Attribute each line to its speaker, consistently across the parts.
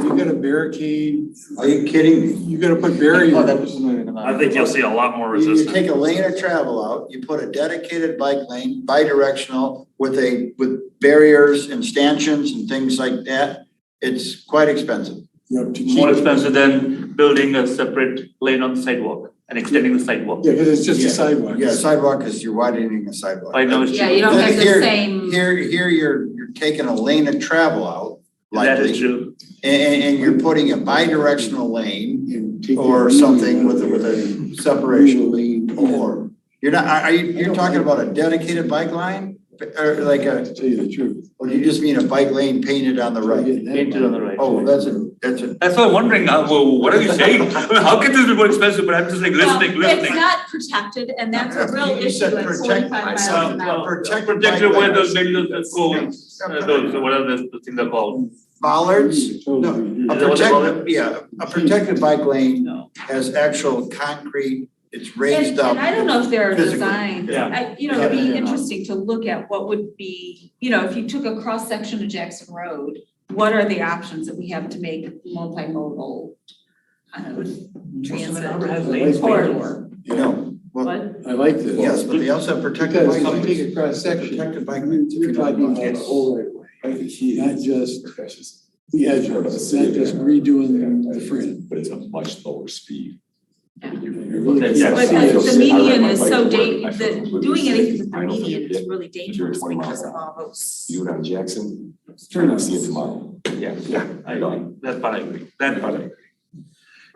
Speaker 1: gonna barricade,
Speaker 2: Are you kidding me?
Speaker 1: you're gonna put
Speaker 3: Oh, that
Speaker 1: barriers.
Speaker 3: was not even on.
Speaker 4: I think you'll see a lot more
Speaker 2: You- You
Speaker 4: resistance.
Speaker 2: take a lane of travel out, you put a dedicated bike lane, bi-directional, with a, with barriers and stanchions and things like that. It's quite expensive.
Speaker 1: Yep, to keep-
Speaker 5: More expensive than building a separate lane on the sidewalk and extending the sidewalk.
Speaker 1: Yeah, cause it's just
Speaker 2: Yeah.
Speaker 1: a sidewalk.
Speaker 2: Yeah, sidewalk is, you're widening a sidewalk.
Speaker 5: I know it's
Speaker 6: Yeah, you don't
Speaker 2: Then
Speaker 6: have the
Speaker 2: here-
Speaker 6: same.
Speaker 2: Here, here you're, you're taking a lane of travel out,
Speaker 5: That
Speaker 2: likely,
Speaker 5: is true.
Speaker 2: and, and, and you're putting a bi-directional lane
Speaker 1: And take
Speaker 2: or
Speaker 1: your-
Speaker 2: something with, a- with a separation.
Speaker 1: Lane.
Speaker 2: Or, you're not, are, are you, you're talking about a dedicated bike line? Or like a,
Speaker 1: To tell you the truth.
Speaker 2: or you just mean a bike lane painted on the right?
Speaker 5: Painted on the right.
Speaker 2: Oh, that's a, that's a,
Speaker 5: That's why I'm wondering, uh, wh- what are you saying? I mean, How can this be more expensive? But I'm just like listening,
Speaker 6: Well, It's
Speaker 5: listening.
Speaker 6: not protected and that's a real
Speaker 2: You
Speaker 6: issue
Speaker 2: said
Speaker 6: at
Speaker 2: protect-
Speaker 6: forty-five
Speaker 2: I
Speaker 6: miles
Speaker 5: Uh,
Speaker 2: saw-
Speaker 6: an
Speaker 2: well,
Speaker 6: hour.
Speaker 2: protected bike
Speaker 5: Protected where
Speaker 2: lane.
Speaker 5: uh, those buildings that go, uh, those, what are the, the thing they're called?
Speaker 2: bollards?
Speaker 1: Totally.
Speaker 2: A
Speaker 5: Is that what they call it?
Speaker 2: protected, yeah, a protected bike lane
Speaker 5: No.
Speaker 2: has actual concrete, it's
Speaker 6: And,
Speaker 2: raised up.
Speaker 6: and I don't know if there are
Speaker 2: physically.
Speaker 6: designs,
Speaker 5: Yeah.
Speaker 6: I, you know, it'd
Speaker 2: Yeah, yeah,
Speaker 6: be
Speaker 2: yeah.
Speaker 6: interesting to look at what would be, you know, if you took a cross-section of Jackson Road, what are the options that we have to make multimodal? um, Transit.
Speaker 1: lanes.
Speaker 6: Corridor,
Speaker 2: No, well,
Speaker 6: what?
Speaker 1: I like this.
Speaker 2: yes, but they also have protected
Speaker 1: Because
Speaker 2: bike
Speaker 1: if you
Speaker 2: lanes.
Speaker 1: take a cross section,
Speaker 2: Protected bike lanes. if
Speaker 1: you're
Speaker 2: don't
Speaker 1: talking
Speaker 2: want
Speaker 1: about the
Speaker 2: it.
Speaker 1: whole right of way. Not just the edge of it, it's not just redoing the fringe.
Speaker 7: But it's a much lower speed.
Speaker 6: Yeah.
Speaker 7: You really
Speaker 5: Yeah.
Speaker 7: can't
Speaker 6: But
Speaker 7: see it.
Speaker 6: the, the
Speaker 7: I ride
Speaker 6: median
Speaker 7: my
Speaker 6: is
Speaker 7: bike
Speaker 6: so
Speaker 7: to work.
Speaker 6: da-
Speaker 7: I
Speaker 6: the,
Speaker 7: feel completely
Speaker 6: doing
Speaker 7: safe.
Speaker 6: anything with the
Speaker 7: I don't think
Speaker 6: median
Speaker 7: it
Speaker 6: is
Speaker 7: did.
Speaker 6: really dangerous because of all those.
Speaker 7: You and on Jackson,
Speaker 1: Turn
Speaker 7: you
Speaker 1: on.
Speaker 7: see it tomorrow.
Speaker 5: Yeah, yeah, I agree. That part I agree. That part I agree.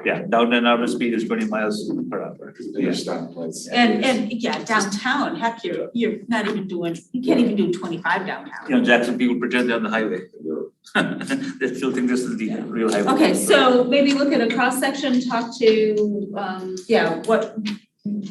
Speaker 5: Yeah, down and out of speed is twenty miles per hour. Yeah.
Speaker 7: Understand, let's-
Speaker 6: And, and, yeah, downtown, heck, you're, you're not even doing, you can't even do twenty-five downtown.
Speaker 5: You know, Jackson people pretend they're on the highway. They still think this is the real highway.
Speaker 6: Okay, so maybe look at a cross-section, talk to, um, yeah, what.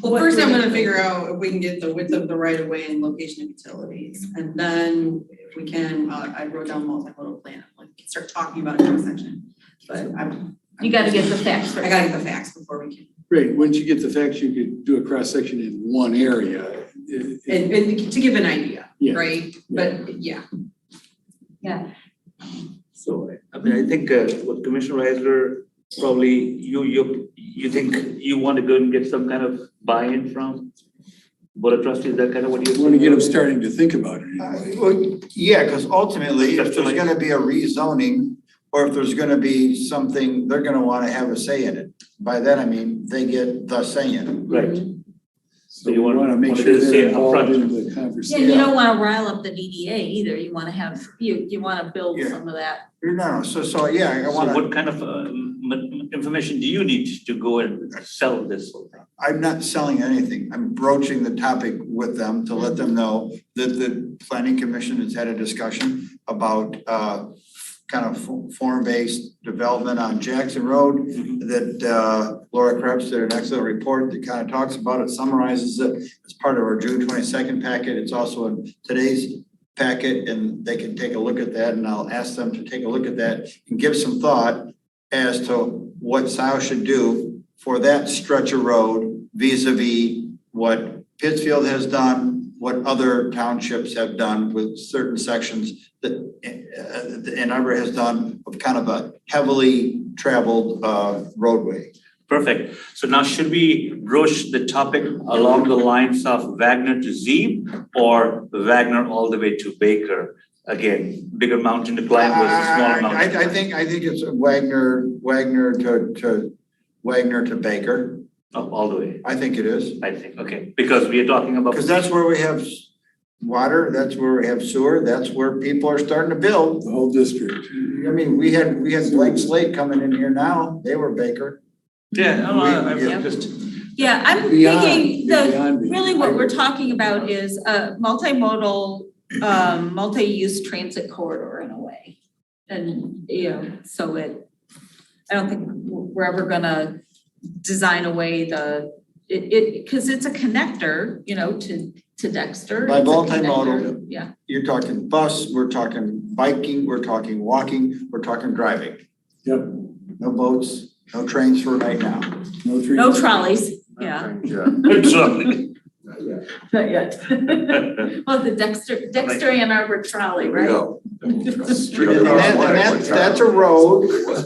Speaker 8: Well, first I'm gonna figure out if we can get the width of the right of way and location of utilities, and then if we can, uh, I wrote down multimodal plan, like, start talking about a cross section. But I'm.
Speaker 6: You gotta get the facts
Speaker 8: I
Speaker 6: first.
Speaker 8: gotta get the facts before we can,
Speaker 1: Great, once you get the facts, you could do a cross section in one area. It- it-
Speaker 8: and, and to give an idea,
Speaker 1: Yeah.
Speaker 8: right? But, yeah.
Speaker 5: So, I mean, I think uh, what Commissioner Reisler, probably you, you, you think you want to go and get some kind of buy-in from Board of Trustees, that kind of what
Speaker 1: I
Speaker 5: you.
Speaker 1: want to get them starting to think about it.
Speaker 2: Uh,
Speaker 1: anyway.
Speaker 2: Well, yeah, because ultimately, if there's
Speaker 5: Definitely.
Speaker 2: gonna be a rezoning, or if there's gonna be something, they're gonna wanna have a say in it. By that, I mean, they get the say in it.
Speaker 5: Right,
Speaker 1: So we
Speaker 5: you wanna-
Speaker 1: want to make
Speaker 5: wanna
Speaker 1: sure
Speaker 5: just say
Speaker 1: they're
Speaker 5: it
Speaker 1: involved
Speaker 5: upfront.
Speaker 1: in the
Speaker 6: Yeah,
Speaker 1: conversation.
Speaker 6: you don't wanna rile up the DDA either, you wanna have, you, you wanna build
Speaker 2: Yeah.
Speaker 6: some of that.
Speaker 2: No, No, so, so, yeah, I
Speaker 5: so
Speaker 2: wanna,
Speaker 5: what kind of uh, m- m- information do you need to go and sell this whole thing?
Speaker 2: I'm not selling anything. I'm broaching the topic with them to let them know that the planning commission has had a discussion about, uh, kind of form-based development on Jackson Road. that uh, Laura Krebs did an excellent report that kind of talks about it, summarizes it. It's part of our June twenty-second packet. It's also in today's packet, and they can take a look at that, and I'll ask them to take a look at that and give some thought as to what Sal should do for that stretch of road vis-a-vis what Pittsfield has done, what other townships have done with certain sections that uh, that Ann Arbor has done of kind of a heavily traveled uh, roadway.
Speaker 5: Perfect. So now should we broach the topic along the lines of Wagner to Zeeb or Wagner all the way to Baker? Again, bigger mountain to climb versus smaller
Speaker 2: Uh, I-
Speaker 5: mountain.
Speaker 2: I, I think, I think it's Wagner, Wagner to, to, Wagner to Baker.
Speaker 5: Up all the way,
Speaker 2: I think it is.
Speaker 5: I think, okay, because we are talking about.
Speaker 2: Because that's where we have s- water, that's where we have sewer, that's where people are starting to build.
Speaker 1: The whole district.
Speaker 2: I mean, we had, we had Blake Slate coming in here now. They were Baker.
Speaker 5: Yeah, no, I, I'm
Speaker 6: Yeah.
Speaker 5: just,
Speaker 6: Yeah, I'm
Speaker 1: Beyond-
Speaker 6: thinking the
Speaker 1: beyond me.
Speaker 6: Really, what we're talking about is a multimodal, um, multi-use transit corridor in a way. And, you know, so it, I don't think we're ever gonna design away the, it, it, cause it's a connector, you know, to, to Dexter.
Speaker 2: By
Speaker 6: It's a
Speaker 2: multimodal.
Speaker 6: connector, Yeah,
Speaker 2: You're talking bus, we're talking biking, we're talking walking, we're talking driving.
Speaker 1: Yep.
Speaker 2: No boats, no trains for right now.
Speaker 1: No trees.
Speaker 6: no trolleys, yeah,
Speaker 5: Exactly.
Speaker 6: not yet. Well, the Dexter, Dexter and Arbor trolley,
Speaker 7: Here
Speaker 6: right?
Speaker 7: we go.
Speaker 2: And that- and that's, that's a road